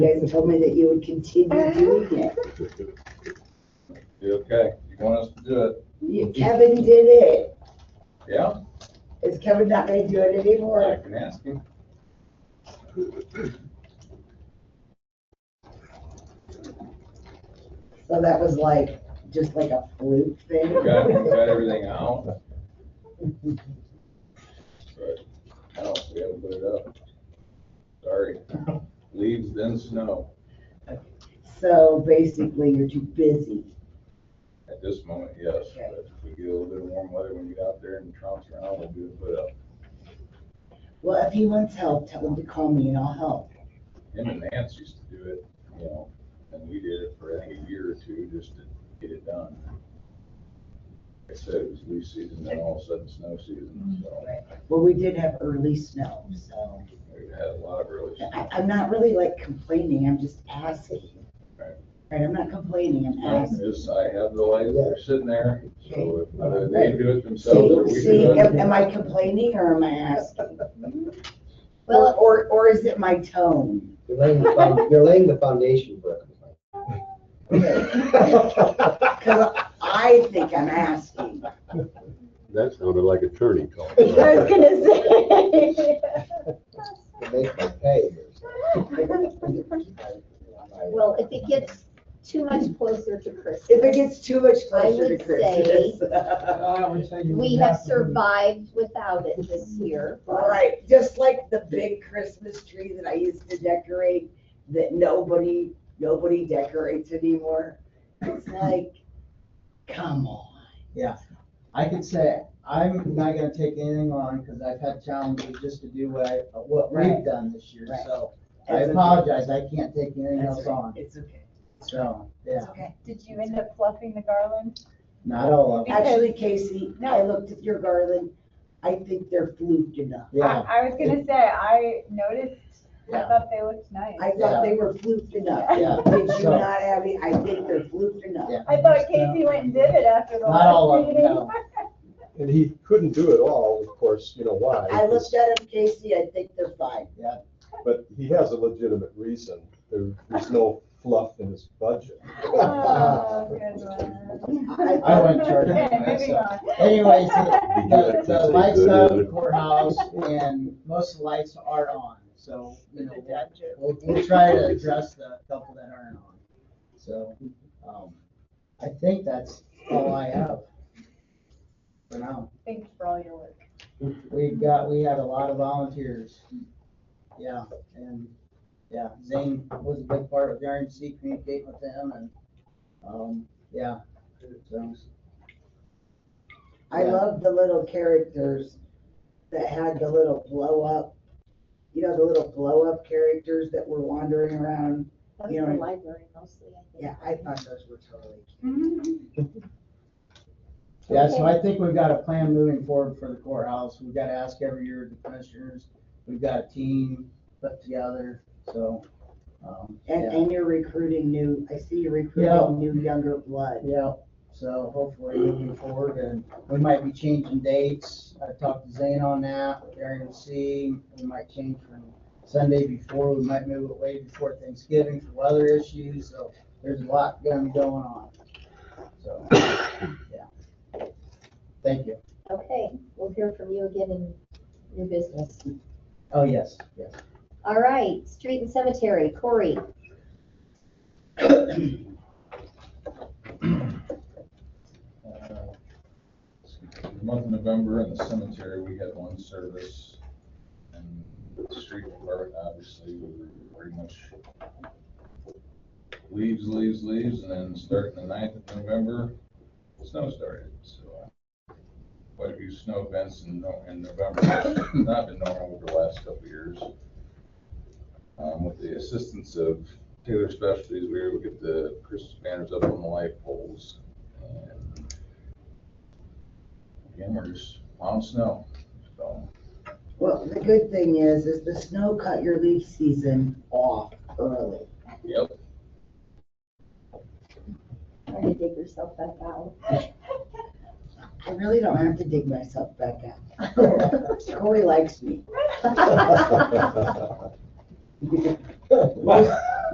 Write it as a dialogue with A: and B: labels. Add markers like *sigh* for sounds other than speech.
A: You guys told me that you would
B: Uh-huh.
A: continue doing it.
C: You okay? You want us to do it?
A: You- Kevin did it.
C: Yeah,
A: Is Kevin not gonna do it
C: I
A: anymore?
C: can ask him.
A: So that was like, just like a fluke thing.
C: We got, we got everything out. But I don't, we haven't put it up. Sorry. Leaves then snow
A: *laughs* So basically, you're too busy.
C: at this moment, yes. But if we get a little bit of warm weather when we get out there and trumps around, we'll do it uh, put up.
A: Well, if he wants help, tell him to call me and I'll help.
C: Him and Nance used to do it, you know, and we did it for, I think, a year or two just to get it done. Like I said, it was leaf season, then all of a sudden snow season, so
A: Well, we did have early snow, so
C: we had a lot of really.
A: I, I'm not really like complaining, I'm just asking.
C: Right.
A: Right, I'm not complaining, I'm asking.
C: Yes, I have the lights, they're sitting there, so if uh, they do it themselves or
A: See,
C: we
A: see,
C: do
A: am
C: it.
A: am I complaining or am I asking? Or,
B: Well-
A: or, or is it my tone?
D: You're laying the, found- you're laying the foundation for it.
A: *laughs* Cause I think I'm asking.
E: That sounded like attorney talk.
B: *laughs* I was gonna say.
D: It makes my pay here.
B: Well, if it gets too much closer
A: If
B: to
A: it
B: Christmas,
A: gets too much closer
B: would
A: to
B: say-
A: Christmas. *laughs*
B: we have survived without it this year.
A: All right, just like the big Christmas tree that I used to decorate, that nobody, nobody decorates anymore. It's like, come on.
F: I can say, I'm not gonna take anything on, because I've had challenges just to do what I, what
A: Right.
F: we've done this year,
A: Right.
F: so. I
A: It's okay.
F: apologize, I can't take anything
A: That's
F: else on,
A: okay. It's okay.
F: so, yeah,
A: It's okay.
G: Did you end up fluffing the garland?
F: not all of them.
B: *laughs*
A: Actually, Casey, I looked at your garland. I think they're fluked enough.
F: Yeah,
G: I, I was gonna say, I noticed, I
F: Yeah.
G: thought they looked nice.
A: I thought they were fluked enough.
F: Yeah.
A: Did you
F: So-
A: not have it? I think they're fluked enough.
F: yeah.
G: I thought Casey went and did it after the
F: Not all
G: last
F: of them,
B: *laughs*
G: meeting.
F: no. *laughs*
E: And he couldn't do it all, of course, you know why?
A: I looked at them, Casey. I think they're fine.
E: But he has a legitimate reason. There- There's no fluff in his budget.
G: *laughs* Oh, good one.
F: I went charging
G: *laughs* Okay,
F: for
G: moving
F: myself.
G: on.
F: Anyways, *laughs* the- the, the lights out of the
E: Good.
F: courthouse, and most of the lights are on, so, you know, we'll, we'll try to address the couple that aren't on. So, um, I think that's all I have for now.
G: Thanks for all your work.
F: We've got, we had a lot of volunteers. Yeah, and, yeah, Zane was a big part of the RNC, communicating with them and, um, yeah. So,
A: I
F: Yeah.
A: love the little characters that had the little blow up, you know, the little blow up characters that were wandering around.
B: That was
A: You know,
B: the library mostly, I think.
A: Yeah, I thought those were totally cute.
G: Mm-hmm.
F: Yeah, so I think we've got a plan moving forward for the courthouse. We've got to ask every year the commissioners. We've got a team put together, so, um,
A: And,
F: yeah,
A: and you're recruiting new, I see you're
F: Yeah.
A: recruiting new younger blood.
F: yeah. So hopefully moving forward and we might be changing dates. I talked to Zane on that, with Aaron C. We might change from Sunday before, we might move it way before Thanksgiving for weather issues, so there's a lot gonna be going on. So, *coughs* yeah. Thank you.
B: Okay, we'll hear from you again in new business.
F: Oh, yes, yes.
B: All right, street and cemetery, Corey.
C: The month of November in the cemetery, we had one service. And with the street department, obviously, we were pretty much leaves, leaves, leaves, and then starting the ninth of November, snow started, so. uh, Quite a few snow events in, No- in November, *coughs* not been normal over the last couple of years. Um, with the assistance of Taylor Specialties, we were able to get the Christmas banners up on the light poles. And Again, we're just plowing snow, so.
A: Well, the good thing is, is the snow cut your leaf season off early.
C: Yep.
B: Trying to dig yourself back out. *laughs*
A: I really don't have to dig myself back out. *laughs* Corey likes me. Most